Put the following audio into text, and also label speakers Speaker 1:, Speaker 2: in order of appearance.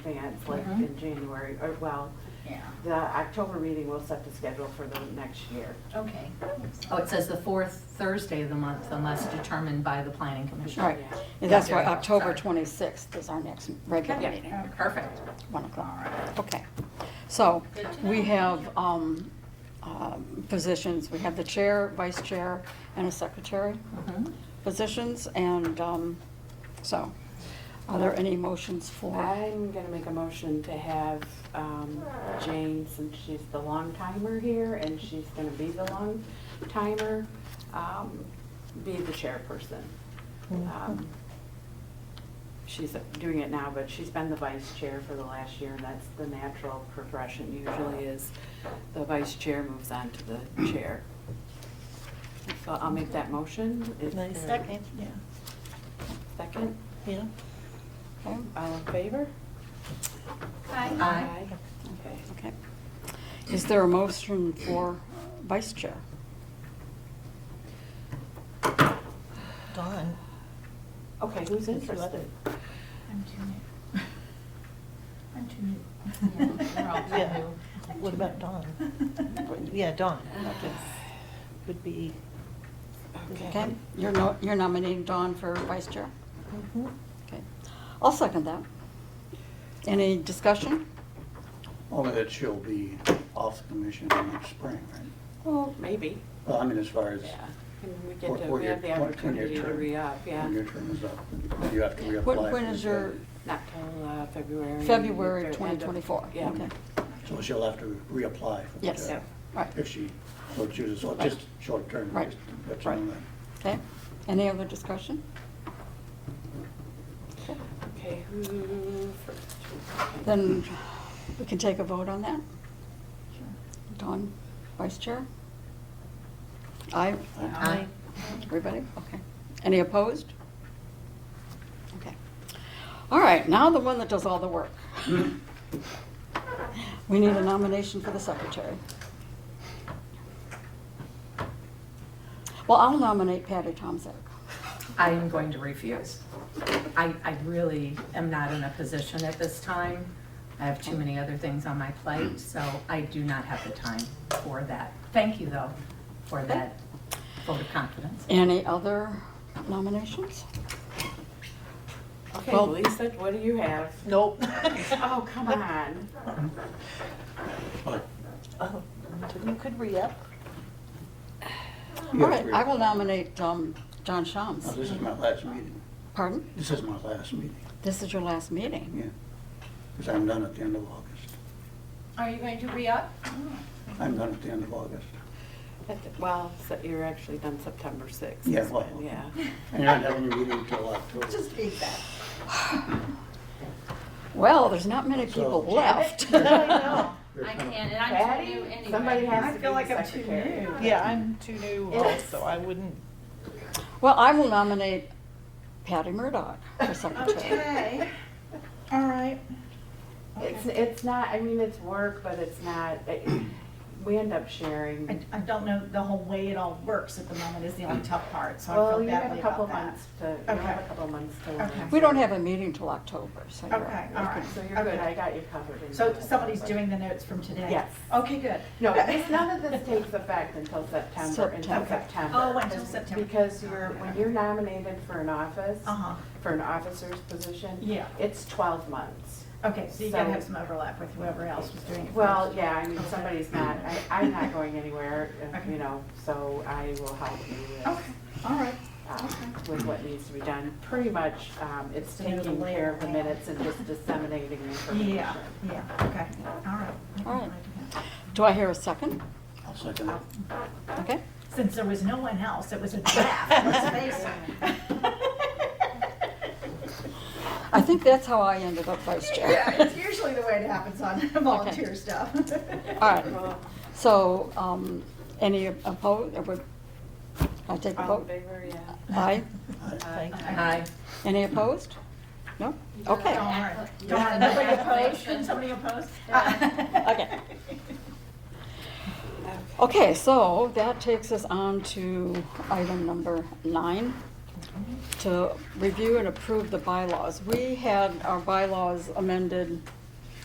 Speaker 1: advance, like
Speaker 2: Mhm.
Speaker 1: in January, or well,
Speaker 2: Yeah,
Speaker 1: the October meeting will set the schedule for the next year.
Speaker 2: okay. Oh, it says the fourth Thursday of the month unless determined by the planning commission.
Speaker 3: Right,
Speaker 1: Yeah.
Speaker 3: and that's why
Speaker 2: Yeah.
Speaker 3: October
Speaker 2: Sorry.
Speaker 3: 26th is our next regular
Speaker 1: Okay.
Speaker 3: meeting,
Speaker 2: Perfect.
Speaker 3: 1 o'clock.
Speaker 2: All right.
Speaker 3: Okay, so
Speaker 2: Good to
Speaker 3: we
Speaker 2: know.
Speaker 3: have um, um, positions, we have the chair, vice chair, and a secretary
Speaker 2: Mhm.
Speaker 3: positions, and um, so, are there any motions for?
Speaker 1: I'm gonna make a motion to have um, Jane, since she's the long timer here, and she's gonna be the long timer, um, be the chairperson. Um, She's doing it now, but she's been the vice chair for the last year, and that's the natural progression usually is the vice chair moves on to the chair. So I'll make that motion. Is there a
Speaker 4: Second, yeah,
Speaker 1: Second,
Speaker 4: yeah.
Speaker 3: Okay,
Speaker 1: all in favor?
Speaker 2: Aye.
Speaker 1: Okay.
Speaker 3: Okay. Is there a motion for vice chair?
Speaker 4: Dawn.
Speaker 1: Okay, who's
Speaker 4: Since you
Speaker 1: interested?
Speaker 5: I'm too new. I'm too new.
Speaker 2: Yeah, we're all too
Speaker 4: Yeah.
Speaker 2: new.
Speaker 5: I'm
Speaker 4: What
Speaker 5: too
Speaker 4: about
Speaker 5: new.
Speaker 4: Dawn? Yeah, Dawn. that is- Would be.
Speaker 3: Okay, you're no- you're nominating Dawn for vice chair?
Speaker 2: Mm-hmm.
Speaker 4: Mhm.
Speaker 3: Okay, I'll second that. Any discussion?
Speaker 6: Only that she'll be off the commission next spring, right?
Speaker 1: Well, maybe,
Speaker 6: Well, I mean, as far as.
Speaker 1: yeah. And we
Speaker 6: when-
Speaker 1: get to,
Speaker 6: when
Speaker 1: we
Speaker 6: your-
Speaker 1: have the
Speaker 6: when- when your
Speaker 1: opportunity to
Speaker 6: term-
Speaker 1: re-up, yeah.
Speaker 6: When your term is up, you have to reapply.
Speaker 3: When- when
Speaker 6: for
Speaker 3: is
Speaker 6: your-
Speaker 3: your-
Speaker 1: Not till uh, February.
Speaker 3: February
Speaker 1: or end of-
Speaker 3: 2024?
Speaker 1: Yeah.
Speaker 3: Okay,
Speaker 6: So she'll have to reapply for the
Speaker 3: Yes.
Speaker 6: job.
Speaker 3: right,
Speaker 6: If she so chooses, so
Speaker 3: Right.
Speaker 6: just short term.
Speaker 3: Right.
Speaker 6: just let you know
Speaker 3: Right. okay. Any other discussion?
Speaker 1: Okay, who first?
Speaker 3: Then we can take a vote on that.
Speaker 5: Sure.
Speaker 3: Dawn, vice chair? Aye,
Speaker 6: that. Um,
Speaker 2: Aye.
Speaker 3: everybody? Okay. Any opposed? Okay. All right, now the one that does all the work. We need a nomination for the secretary. Well, I'll nominate Patty Tomzek.
Speaker 2: I am going to refuse. I, I really am not in a position at this time. I have too many other things on my plate, so I do not have the time for that. Thank you, though, for that vote of confidence.
Speaker 3: Any other nominations?
Speaker 1: Okay,
Speaker 3: Well-
Speaker 1: Lisa, what do you have?
Speaker 4: Nope.
Speaker 1: Oh, come on.
Speaker 6: but
Speaker 4: Oh, You could re-up.
Speaker 6: you
Speaker 3: All
Speaker 6: have to
Speaker 3: right, I
Speaker 6: reapply.
Speaker 3: will nominate um, John
Speaker 6: Now,
Speaker 3: Shams.
Speaker 6: Oh, This is my last meeting.
Speaker 3: Pardon?
Speaker 6: This is my last meeting,
Speaker 3: This is your last meeting.
Speaker 6: yeah. Because I'm done at the end of August.
Speaker 5: Are you going to re-up?
Speaker 6: I'm done at the end of August.
Speaker 1: That- Well, so you're actually done September 6th.
Speaker 6: Yeah,
Speaker 1: is
Speaker 6: well.
Speaker 1: when, Yeah.
Speaker 6: And you're not having a meeting until October.
Speaker 5: Just leave that.
Speaker 3: Well, there's not many people
Speaker 6: So-
Speaker 3: left.
Speaker 4: I know.
Speaker 6: There's
Speaker 7: I
Speaker 6: no-
Speaker 7: can, and I'm too new
Speaker 1: Patty,
Speaker 7: anyway.
Speaker 1: somebody has
Speaker 5: I
Speaker 1: to be
Speaker 5: feel like
Speaker 1: the
Speaker 5: I'm too
Speaker 1: secretary.
Speaker 5: new.
Speaker 4: Yeah, I'm too new
Speaker 5: Yes.
Speaker 4: also. I wouldn't.
Speaker 3: Well, I will nominate Patty Murdock for secretary.
Speaker 5: Okay. All right.
Speaker 1: It's, it's not, I mean, it's work, but it's not, it- we end up sharing.
Speaker 8: I, I don't know the whole way it all works at the moment is the only tough part, so I
Speaker 1: Well,
Speaker 8: feel
Speaker 1: you have
Speaker 8: badly
Speaker 1: a couple
Speaker 8: about that.
Speaker 1: months to, you have a
Speaker 8: Okay.
Speaker 1: couple months to.
Speaker 8: Okay.
Speaker 1: learn.
Speaker 3: We don't have a meeting till October, so you're.
Speaker 8: Okay, all right.
Speaker 1: So you're good,
Speaker 8: Okay.
Speaker 1: I got you covered. in
Speaker 8: So
Speaker 1: that.
Speaker 8: somebody's doing the notes from today?
Speaker 1: Yes.
Speaker 8: Okay, good.
Speaker 1: No, this, none of this takes effect until September, until
Speaker 3: September.
Speaker 1: September.
Speaker 8: Oh, until September.
Speaker 1: Because you're, when you're nominated for an office,
Speaker 8: Uh-huh,
Speaker 1: for an officer's position.
Speaker 8: Yeah.
Speaker 1: It's twelve months.
Speaker 8: okay, so you gotta
Speaker 1: So-
Speaker 8: have some overlap with whoever else was doing it first.
Speaker 1: Well, yeah, I mean, somebody's not, I, I'm not going anywhere, uh,
Speaker 8: Okay.
Speaker 1: you know, so I will help you with.
Speaker 8: Okay, all right.
Speaker 1: um, With what needs to be done. Pretty much, um, it's
Speaker 8: To know the
Speaker 1: taking
Speaker 8: lay of
Speaker 1: care of
Speaker 8: the
Speaker 1: the
Speaker 8: land.
Speaker 1: minutes and just disseminating the information.
Speaker 8: Yeah, yeah, okay, all right. I can
Speaker 3: All right.
Speaker 8: write it down.
Speaker 3: Do I hear a second?
Speaker 6: I'll second that.
Speaker 3: Oh. Okay.
Speaker 8: Since there was no one else, it was a draft, let's face it.
Speaker 3: I think that's how I ended up vice
Speaker 8: Yeah,
Speaker 3: chair.
Speaker 8: it's usually the way it happens on volunteer stuff.
Speaker 3: All right, so, um, any opposed, or would, I take a
Speaker 1: All in
Speaker 3: vote?
Speaker 1: favor, yeah.
Speaker 3: Aye.
Speaker 6: I-
Speaker 4: Thank you.
Speaker 2: Aye.
Speaker 3: Any opposed? No? Okay,
Speaker 8: Don't
Speaker 7: Yeah.
Speaker 8: worry.
Speaker 7: Yeah.
Speaker 8: Don't worry.
Speaker 7: Yeah.
Speaker 8: Nobody opposed? Uh,
Speaker 7: Yeah.
Speaker 8: Couldn't somebody oppose?
Speaker 7: Yeah.
Speaker 3: okay. Okay, so that takes us on to item number nine. to review and approve the bylaws. We had our bylaws amended